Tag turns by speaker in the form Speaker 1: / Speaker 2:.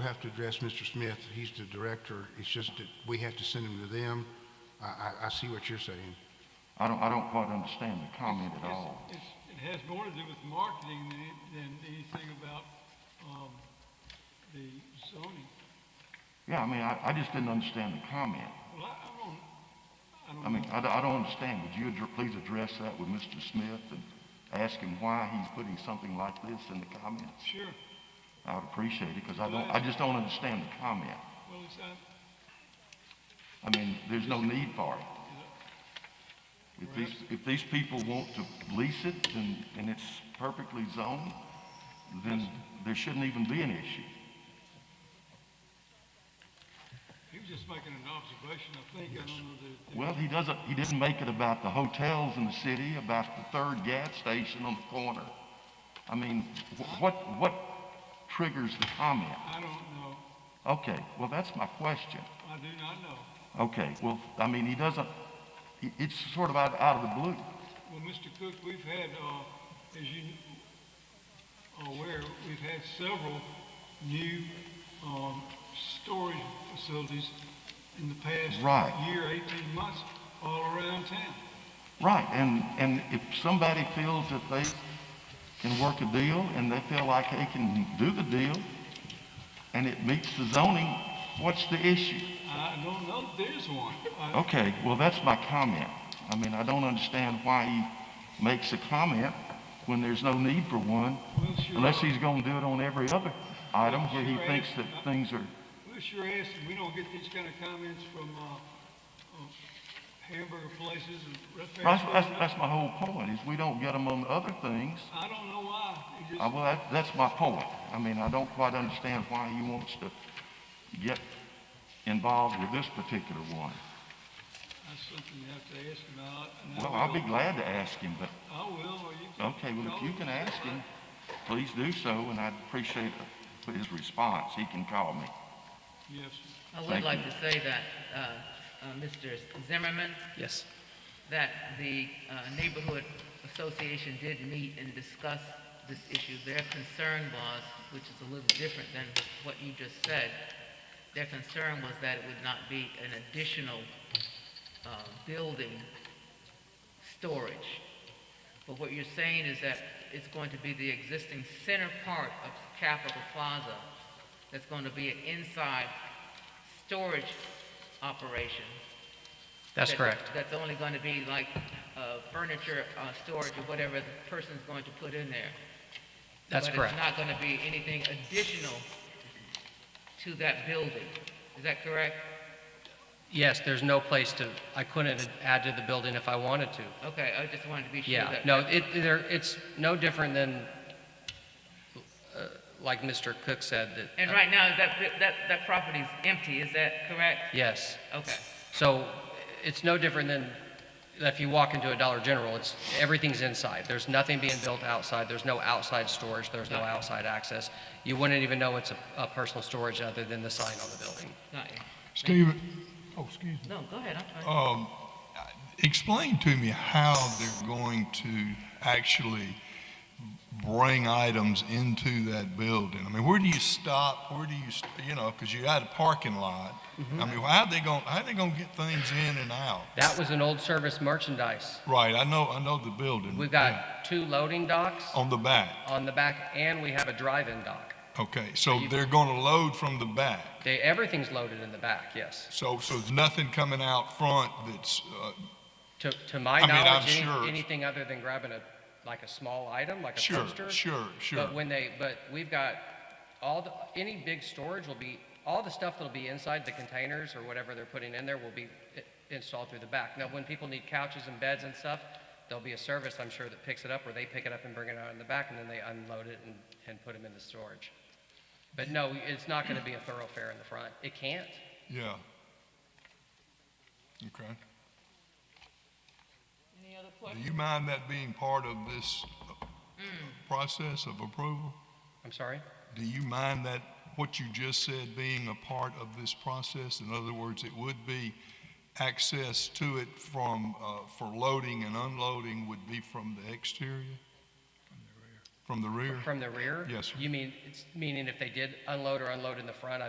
Speaker 1: have to address Mr. Smith. He's the director. It's just that we have to send him to them. I, I, I see what you're saying.
Speaker 2: I don't, I don't quite understand the comment at all.
Speaker 3: It's- it's- It has more to do with marketing than, it- than anything about, um, the zoning.
Speaker 2: Yeah, I mean, I, I just didn't understand the comment.
Speaker 3: Well, I, I don't, I don't.
Speaker 2: I mean, I, don't- I don't understand. Would you addr- please address that with Mr. Smith and ask him why he's putting something like this in the comments?
Speaker 3: Sure,
Speaker 2: I would appreciate it, because I don't, I just don't understand the comment.
Speaker 3: well, it's, uh,
Speaker 2: I mean, there's no need for it. If these, if these people want to lease it and, and it's perfectly zoned, then there shouldn't even be an issue.
Speaker 3: he was just making an observation, I think, I don't know that. that-
Speaker 2: Well, he doesn't, he didn't make it about the hotels in the city, about the third gas station on the corner. I mean, wh- what, what triggers the comment?
Speaker 3: I don't know,
Speaker 2: Okay, well, that's my question.
Speaker 3: I do not know.
Speaker 2: Okay, well, I mean, he doesn't, he- it's sort of out, out of the blue.
Speaker 3: Well, Mr. Cook, we've had, uh, as you are aware, we've had several new, um, storage facilities in the past
Speaker 2: Right.
Speaker 3: year, eighteen months, all around town.
Speaker 2: Right, and, and if somebody feels that they can work a deal and they feel like they can do the deal and it meets the zoning, what's the issue?
Speaker 3: I don't know if there's one. I-
Speaker 2: Okay, well, that's my comment. I mean, I don't understand why he makes a comment when there's no need for one,
Speaker 3: We'll sure,
Speaker 2: unless he's gonna do it on every other item where he thinks that things are,
Speaker 3: we'll sure ask, and we don't get these kind of comments from, uh, uh, hamburger places and
Speaker 2: that's, that's,
Speaker 3: restaurants.
Speaker 2: that's my whole point, is we don't get them on other things.
Speaker 3: I don't know why. It just-
Speaker 2: Uh, well, that, that's my point. I mean, I don't quite understand why he wants to get involved with this particular one.
Speaker 3: That's something you have to ask him out. and I
Speaker 2: Well, I'll be
Speaker 3: will.
Speaker 2: glad to ask him, but
Speaker 3: I will, or you can.
Speaker 2: Okay, well, if you
Speaker 3: call
Speaker 2: can
Speaker 3: me.
Speaker 2: ask him, please do so, and I'd appreciate his response. He can call me.
Speaker 3: Yes,
Speaker 4: I
Speaker 2: Thank
Speaker 4: would like to say that, uh, uh, Mr. Zimmerman,
Speaker 5: Yes.
Speaker 4: that the uh, neighborhood association did meet and discuss this issue. Their concern was, which is a little different than what you just said, their concern was that it would not be an additional uh, building storage. But what you're saying is that it's going to be the existing center part of Capitol Plaza that's going to be an inside storage operation.
Speaker 5: That's
Speaker 4: that-
Speaker 5: correct.
Speaker 4: That's only going to be like uh, furniture uh, storage or whatever the person's going to put in there.
Speaker 5: That's
Speaker 4: But
Speaker 5: correct.
Speaker 4: it's not going to be anything additional to that building. Is that correct?
Speaker 5: Yes, there's no place to, I couldn't add to the building if I wanted to.
Speaker 4: Okay, I just wanted to be sure
Speaker 5: Yeah,
Speaker 4: that.
Speaker 5: no, it, there, it's no different than, uh, like Mr. Cook said, that.
Speaker 4: And right now, that, that, that property's empty, is that correct?
Speaker 5: Yes.
Speaker 4: Okay.
Speaker 5: So it's no different than if you walk into a Dollar General, it's, everything's inside. There's nothing being built outside. There's no outside storage. There's no outside access. You wouldn't even know it's a, a personal storage other than the sign on the building.
Speaker 4: Got you.
Speaker 6: Steve, oh, excuse me.
Speaker 4: No, go ahead, I'm sorry.
Speaker 6: Um, explain to me how they're going to actually bring items into that building. I mean, where do you stop? Where do you, st- you know, because you got a parking lot. I mean, how they going, how they going to get things in and out?
Speaker 5: That was an old service merchandise.
Speaker 6: Right, I know, I know the building.
Speaker 5: We've got two loading docks
Speaker 6: On the back.
Speaker 5: on the back and we have a drive-in dock.
Speaker 6: Okay, so they're going to load from the back.
Speaker 5: They, everything's loaded in the back, yes.
Speaker 6: So, so there's nothing coming out front that's, uh,
Speaker 5: To, to my
Speaker 6: I mean, I'm
Speaker 5: knowledge,
Speaker 6: sure-
Speaker 5: any- anything other than grabbing a, like a small item, like a Oh,
Speaker 6: sure,
Speaker 5: poster.
Speaker 6: sure, sure.
Speaker 5: But when they, but we've got all the, any big storage will be, all the stuff that'll be inside the containers or whatever they're putting in there will be i- installed through the back. Now, when people need couches and beds and stuff, there'll be a service, I'm sure, that picks it up, or they pick it up and bring it out in the back, and then they unload it and, and put them in the storage. But no, it's not gonna be a thoroughfare in the front. It can't.
Speaker 6: Yeah. Okay.
Speaker 4: Any other
Speaker 6: Do you mind that being part of this
Speaker 4: Mm.
Speaker 6: process of approval?
Speaker 5: I'm sorry?
Speaker 6: Do you mind that, what you just said, being a part of this process? In other words, it would be access to it from, uh, for loading and unloading would be from the exterior? from the rear?
Speaker 5: From the rear?
Speaker 6: Yes, sir.
Speaker 5: You mean, it's meaning if they did unload or unload in the front,